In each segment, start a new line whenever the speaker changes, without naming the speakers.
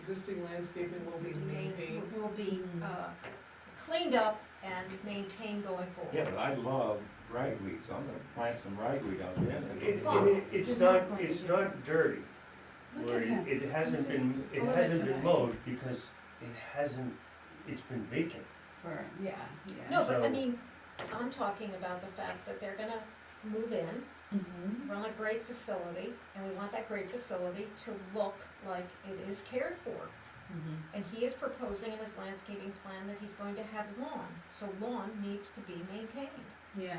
existing landscaping will be maintained.
will be uh, cleaned up and maintained going forward.
Yeah, but I love ragweed, so I'm gonna plant some ragweed out there. and-
It, it, it's not, it's not dirty, where it- it hasn't been, it hasn't been mowed because it hasn't, it's been vacant.
For, yeah, yeah.
No, but I
So-
mean, I'm talking about the fact that they're gonna move in,
Mhm.
run a great facility, and we want that great facility to look like it is cared for.
Mhm.
And he is proposing in his landscaping plan that he's going to have lawn, so lawn needs to be maintained.
Yeah,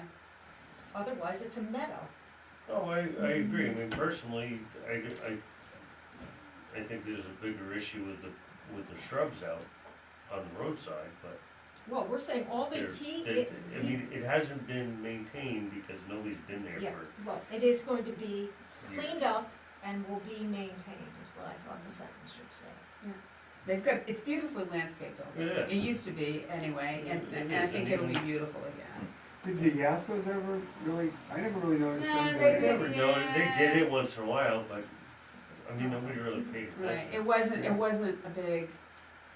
Otherwise, it's a meadow.
No, I, I agree, I mean, personally, I, I, I think there's a bigger issue with the, with the shrubs out on the roadside, but
Well, we're saying all the,
they're,
he,
they
it,
I mean, it hasn't been maintained because nobody's been there
yeah,
for
well, it is going to be
years.
cleaned up and will be maintained, is what I thought the sentence should say.
they've got, it's beautifully landscaped over there.
It
It
is.
used to be, anyway, and,
It
and
is,
I
and
think it'll be
even-
beautiful again.
Did the Yaskos ever really, I never really noticed
No,
them.
they
You
doing
never
it.
didn't.
know, they did
Yeah.
it once in a while, but,
This is-
I mean, nobody really paid attention.
Right, it wasn't, it wasn't a big,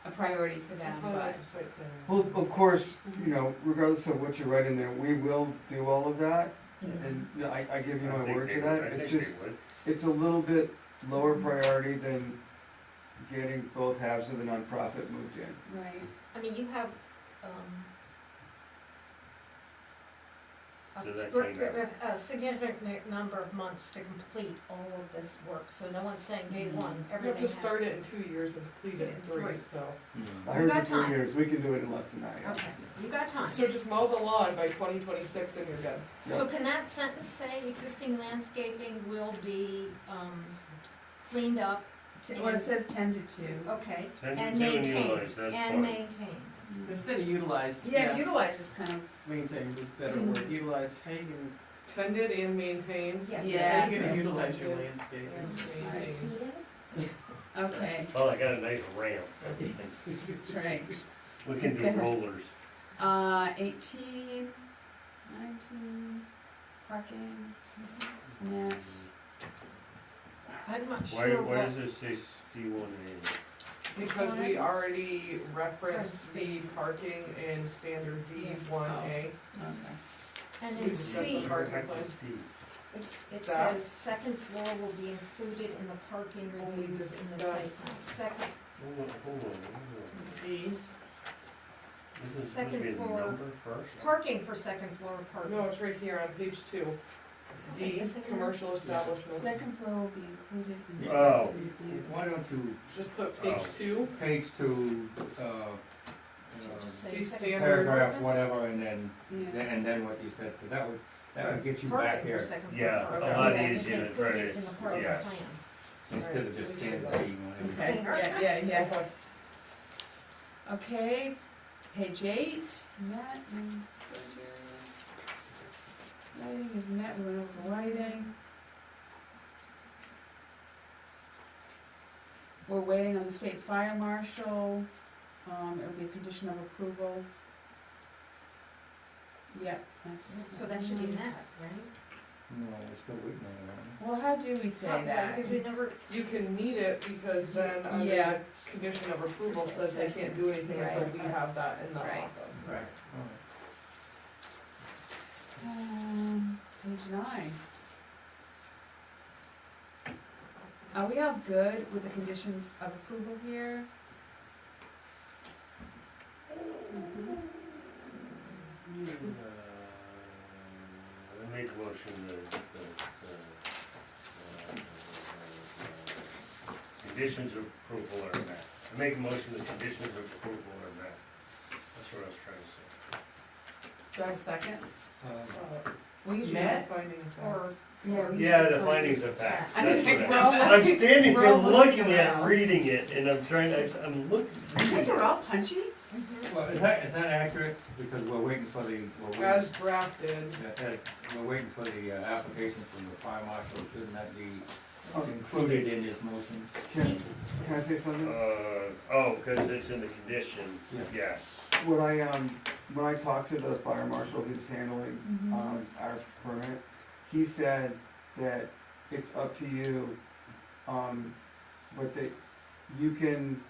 a priority for them,
Oh,
but,
that's a site plan.
Well, of course, you know, regardless of what you write in there, we will do all of that,
Mhm.
and you know, I, I give you
I
my
think
word
they
to
would-
that,
I
it's
think
just,
they would.
it's a little bit lower priority than getting both halves of the nonprofit moved in.
right.
I mean, you have, um, a
So that
gr-
came out.
gr- A significant n- number of months to complete all of this work, so no one's saying day one,
You have to
everything happened.
Mm-hmm. start it in two years and complete it in three,
Three.
so.
Mm-hmm.
I heard
got
for three
time.
years, we can do it in less than that, yeah.
Okay, you got time.
So just mow the lawn by twenty twenty-six and you're done.
So can that sentence say existing landscaping will be, um, cleaned up?
T- Well, it says ten to two.
Okay,
Ten-
and
ten
maintained,
utilized, that's
and
fine.
maintained.
Mm-hmm.
Instead of utilized,
Yeah,
yeah,
utilize is kind of,
maintained is better
Mhm.
word, utilized, how you can,
Tended and maintained.
Mm-hmm. Yes.
Yeah.
how you
Yeah.
can utilize your landscape.
And maintained.
okay,
Well, I got a nice ramp,
that's right.
we can do
Okay.
rollers.
Uh, eighteen, nineteen, parking, net.
I'm not
Why,
sure
why
what,
does it say sixty-one A?
Because we already referenced the parking in standard D one A.
Oh.
Okay.
and
We
in
discussed
C,
the parking plan.
It
That-
says, second floor will be included in the parking
Only
review in the site plan.
discussed.
Second,
Hold on, hold on, hold on.
D,
Isn't it supposed to
Second
be a
floor.
number first?
parking for second floor apartments.
no, it's right here on page two.
Something
D,
missing in there?
commercial establishment.
Second floor will be included in the.
Oh.
Why don't you,
Just put page
Oh.
two,
page to, uh,
Should just
uh,
say
see
second floor
standard
paragraph,
apartments?
whatever, and then, then,
Yes.
and then what you said, because that would, that would get you back
Parking for
here,
second floor
Yeah,
apartments.
a
Okay.
lot
Yeah,
It's
easier to try
included in the
to,
parking
yes.
plan.
instead of just standing.
Okay, yeah, yeah, yeah.
Okay.
Okay, page eight, net and surgery. Lighting is net, we went over the lighting. We're waiting on the state fire marshal, um, it'll be a condition of approval. Yep, that's.
So that should
Mm.
be met, right?
No, we're still waiting on that.
Well, how do we say that?
Because we never,
You can meet it because then under
Yeah.
the condition of approval says they can't do anything until
Right.
we have that in the
Right.
office.
Right.
Um, page nine. Are we all good with the conditions of approval here?
Hmm. Uh, I make a motion that, that, uh, uh, conditions of approval are met. I make a motion that conditions of approval are met. That's what I was trying to say.
Do I have a second?
Uh,
We usually.
Matt finding of
or,
facts.
Yeah, we
Yeah,
usually
the
put-
findings of fact.
I
That's
mean,
what
like,
I-
well,
I'm
let's,
standing
we're
there
all
looking
looking
at,
around.
reading it, and I'm trying, to- I'm looking,
because
reading
we're
it.
all punchy.
Well, is that, is that accurate? Because we're waiting for the, we're waiting,
As drafted,
that- that- we're waiting for the uh, application from the fire marshal, shouldn't that be included in this motion?
Can-
Oh, can I say something?
Uh, oh, cause it's in the condition,
Yeah.
yes.
When I, um, when I talked to the fire marshal who's handling,
Mhm.
Mm-hmm.
um, our permit, he said that it's up to you, um, but that you can